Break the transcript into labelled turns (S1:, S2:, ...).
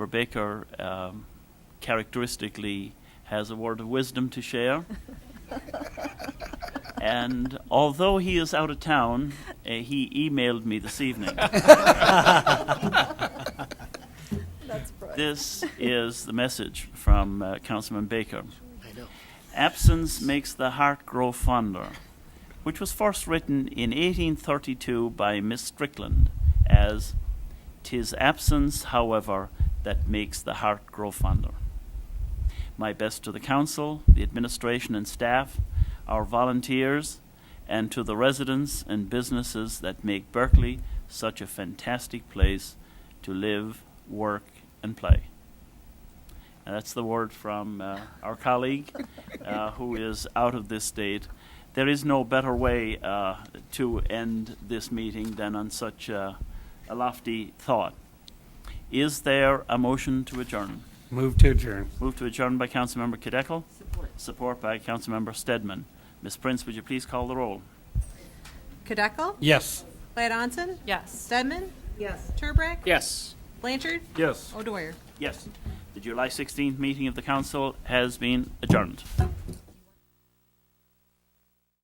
S1: Rebecca um, characteristically has a word of wisdom to share. and although he is out of town, uh, he emailed me this evening.
S2: That's right.
S1: This is the message from uh, Councilman Baker.
S3: I know.
S1: Absence makes the heart grow fonder, which was first written in 1832 by Miss Strickland as "Tis absence, however, that makes the heart grow fonder." My best to the council, the administration and staff, our volunteers, and to the residents and businesses that make Berkeley such a fantastic place to live, work, and play. And that's the word from uh, our colleague uh, who is out of this state. There is no better way uh, to end this meeting than on such uh, a lofty thought. Is there a motion to adjourn?
S4: Move to adjourn.
S1: Moved to adjourn by Councilmember Cadecle. Support. Support by Councilmember Stedman. Ms. Prince, would you please call the roll?
S2: Kadekel?
S4: Yes.
S2: Lad Onson?
S5: Yes.
S2: Stedman? Yes. Turbrack?
S3: Yes.
S2: Blanchard?
S4: Yes.
S2: O'Dwyer?
S1: Yes. The July 16th meeting of the council has been adjourned.